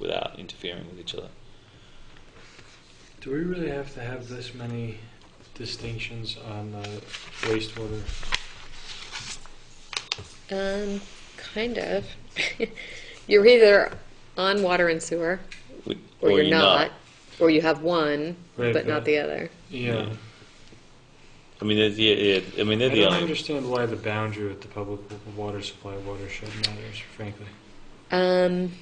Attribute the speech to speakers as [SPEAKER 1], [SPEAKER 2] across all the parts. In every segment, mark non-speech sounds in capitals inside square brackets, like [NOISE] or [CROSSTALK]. [SPEAKER 1] not interfering with each other.
[SPEAKER 2] Do we really have to have this many distinctions on the wastewater?
[SPEAKER 3] Um, kind of. [LAUGHS] you're either on water and sewer,
[SPEAKER 1] We-
[SPEAKER 3] or, you're not, or you have one
[SPEAKER 2] Right,
[SPEAKER 3] but
[SPEAKER 2] but-
[SPEAKER 3] not the other.
[SPEAKER 2] Yeah.
[SPEAKER 1] I mean, there's- yeah, yeah, I mean,
[SPEAKER 2] I
[SPEAKER 1] they're the
[SPEAKER 2] don't
[SPEAKER 1] only.
[SPEAKER 2] understand why the boundary with the public w- water supply watershed matters, frankly.
[SPEAKER 3] Um,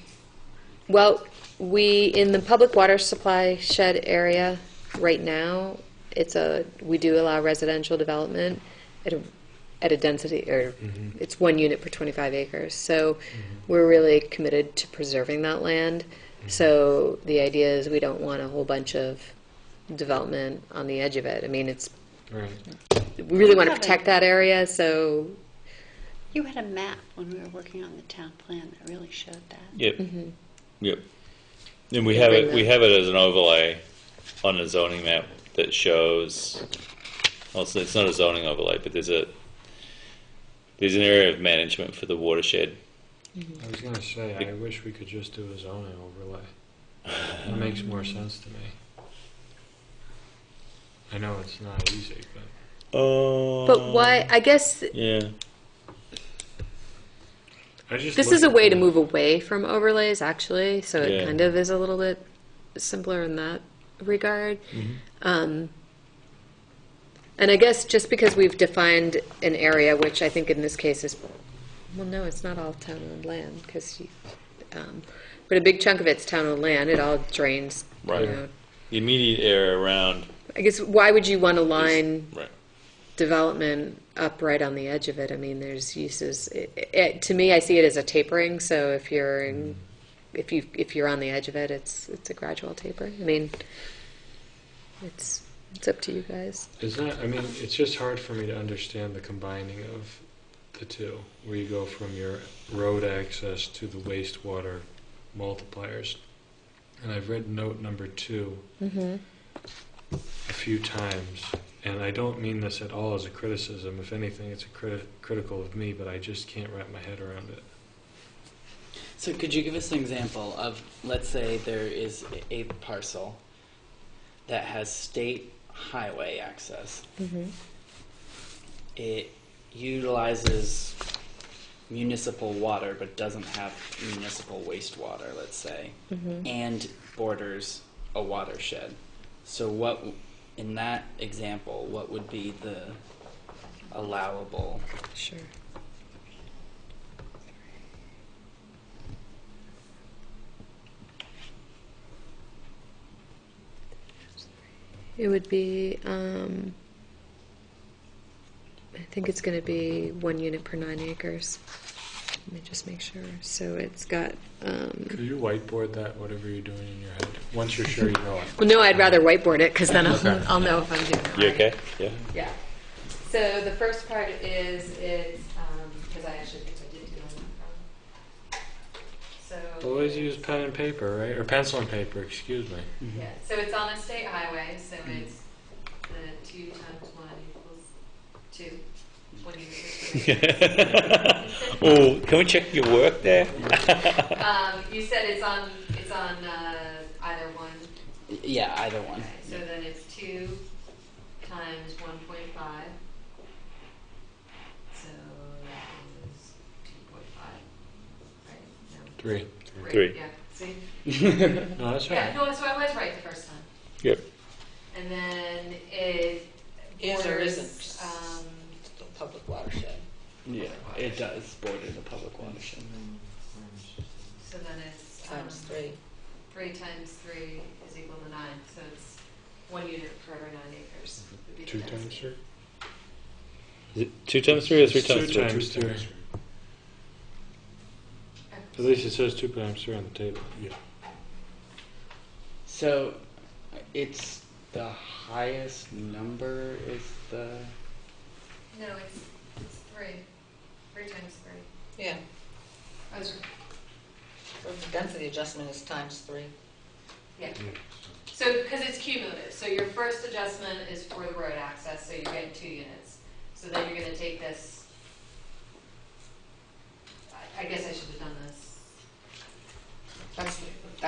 [SPEAKER 3] well, we in the public water supply shed area right now. It's a we do allow residential development at a at a density or
[SPEAKER 2] Mhm.
[SPEAKER 3] it's one unit per 25 acres. So
[SPEAKER 2] Mm-hmm.
[SPEAKER 3] we're really committed to preserving that land. So the idea is we don't want a whole bunch of development on the edge of it. I mean, it's
[SPEAKER 2] Right.
[SPEAKER 3] we really want to
[SPEAKER 4] Have it.
[SPEAKER 3] protect that area. So
[SPEAKER 4] You had a map when we were working on the town plan that really showed that.
[SPEAKER 1] Yep.
[SPEAKER 3] Mm-hmm.
[SPEAKER 1] Yep. And we have it. We have it as an overlay on a zoning map that shows. Also, it's not a zoning overlay, but there's a there's an area of management for the watershed.
[SPEAKER 2] I was gonna say, I wish we could just do a zoning overlay. It makes more sense to me. I know it's not easy, but
[SPEAKER 1] Oh.
[SPEAKER 3] but why I guess
[SPEAKER 1] Yeah.
[SPEAKER 2] I just.
[SPEAKER 3] this
[SPEAKER 2] look
[SPEAKER 3] is a
[SPEAKER 2] at
[SPEAKER 3] way to
[SPEAKER 2] the-
[SPEAKER 3] move away from overlays actually, so it
[SPEAKER 1] Yeah.
[SPEAKER 3] kind of is a little bit simpler in that regard. Um, and I guess just because we've defined an area, which I think in this case is, well, no, it's not all town-owned land, because, um, but a big chunk of it's town-owned land, it all drains. you
[SPEAKER 1] Right.
[SPEAKER 3] know.
[SPEAKER 1] The immediate area around.
[SPEAKER 3] I guess, why would you want to line
[SPEAKER 1] Right.
[SPEAKER 3] development up right on the edge of it. I mean, there's uses. It, it, to me, I see it as a tapering. So if you're in, if you if you're on the edge of it, it's it's a gradual taper. I mean, it's it's up to you guys.
[SPEAKER 2] It's not, I mean, it's just hard for me to understand the combining of the two, where you go from your road access to the wastewater multipliers. And I've read note number two
[SPEAKER 3] Mm-hmm.
[SPEAKER 2] a few times, and I don't mean this at all as a criticism. If anything, it's a criti- critical of me, but I just can't wrap my head around it.
[SPEAKER 5] So could you give us an example of, let's say there is a parcel that has state highway access.
[SPEAKER 3] Mm-hmm.
[SPEAKER 5] It utilizes municipal water but doesn't have municipal wastewater, let's say,
[SPEAKER 3] Mm-hmm.
[SPEAKER 5] and borders a watershed. So what, w- in that example, what would be the allowable
[SPEAKER 3] Sure. It would be, um, I think it's gonna be one unit per nine acres. Let me just make sure. So it's got,
[SPEAKER 2] Could
[SPEAKER 3] um,
[SPEAKER 2] you whiteboard that, whatever you're doing in your head, once you're sure you know it?
[SPEAKER 3] well, no, I'd rather whiteboard it, cause then
[SPEAKER 2] Okay.
[SPEAKER 3] I'll, I'll know if I'm doing it right.
[SPEAKER 1] You okay? Yeah.
[SPEAKER 3] Yeah. So the first part is, it's, um, because I actually think I did do it. So.
[SPEAKER 2] Always use pen and paper, right? Or pencil and paper, excuse me.
[SPEAKER 3] Yeah, so it's on a state highway, so it's the two times one equals two. When you get to
[SPEAKER 1] oh, can we check your work there?
[SPEAKER 3] it. Um, you said it's on, it's on, uh, either one,
[SPEAKER 5] Yeah, either one.
[SPEAKER 3] okay, so then it's two times one point five. So that is two point five, right? No,
[SPEAKER 2] Three.
[SPEAKER 3] right,
[SPEAKER 1] Three.
[SPEAKER 3] Yeah, see,
[SPEAKER 2] No, that's all
[SPEAKER 3] yeah,
[SPEAKER 2] right.
[SPEAKER 3] no, so I was right the first time.
[SPEAKER 1] Yep.
[SPEAKER 3] And then it
[SPEAKER 6] Is or
[SPEAKER 3] borders,
[SPEAKER 6] isn't?
[SPEAKER 3] um,
[SPEAKER 6] the public watershed.
[SPEAKER 5] Yeah, it does border the public watershed.
[SPEAKER 3] So then it's, um,
[SPEAKER 6] Times three.
[SPEAKER 3] three times three is equal to nine, so it's one unit per every nine acres. would be the
[SPEAKER 2] Mm-hmm. Two
[SPEAKER 3] density.
[SPEAKER 2] times three?
[SPEAKER 1] Is it two times three or three
[SPEAKER 2] It's
[SPEAKER 1] times
[SPEAKER 2] two
[SPEAKER 1] three?
[SPEAKER 2] times three. At least it says two times three on the table. Yeah.
[SPEAKER 5] So it's the highest number is the
[SPEAKER 3] No, it's, it's three, three times three.
[SPEAKER 6] Yeah,
[SPEAKER 3] I was,
[SPEAKER 6] so the density adjustment is times three.
[SPEAKER 3] yeah, so, because it's cumulative, so your first adjustment is for the road access, so you're getting two units. So then you're gonna take this, I, I guess I should have done this.
[SPEAKER 6] That's,